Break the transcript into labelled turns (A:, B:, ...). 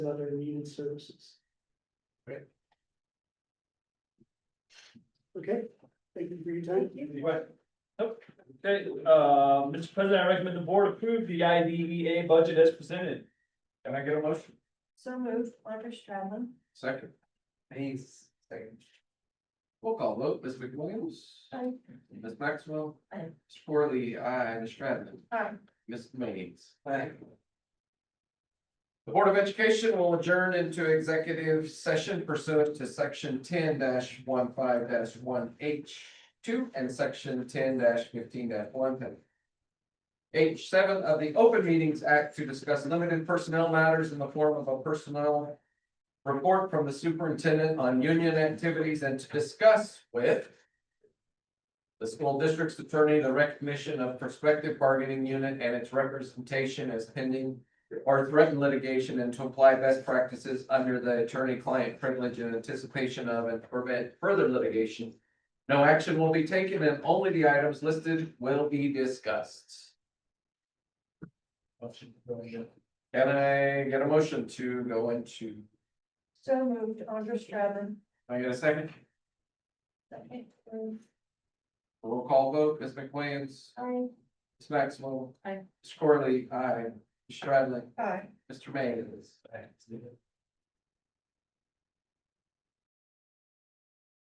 A: and other needed services. Right. Okay, thank you for your time.
B: Any questions? Nope. Okay, uh, Mr. President, I recommend the board approve the IDEA budget as presented. Can I get a motion?
C: So moved, Walter Stradlin,
D: Second. Hayes, second. Roll call vote, Ms. McWilliams.
C: Aye.
D: Ms. Maxwell.
C: Aye.
D: Mr. Corley, aye, Ms. Stradlin.
C: Aye.
D: Ms. Mays. The Board of Education will adjourn into executive session pursuant to section ten 15 one H two and section ten fifteen one H seven of the Open Meetings Act to discuss limited personnel matters in the form of a personnel report from the superintendent on union activities and to discuss with the school district's attorney, the recognition of prospective bargaining unit and its representation as pending or threatened litigation and to apply best practices under the attorney-client privilege in anticipation of and prevent further litigation. No action will be taken and only the items listed will be discussed. Can I get a motion to go into,
C: so moved, Walter Stradlin.
D: I get a second?
C: Second.
D: Roll call vote, Ms. McWilliams,
C: Aye.
D: Ms. Maxwell.
C: Aye.
D: Ms. Corley, aye. Ms. Stradlin,
C: Aye.
D: Mr. Mays.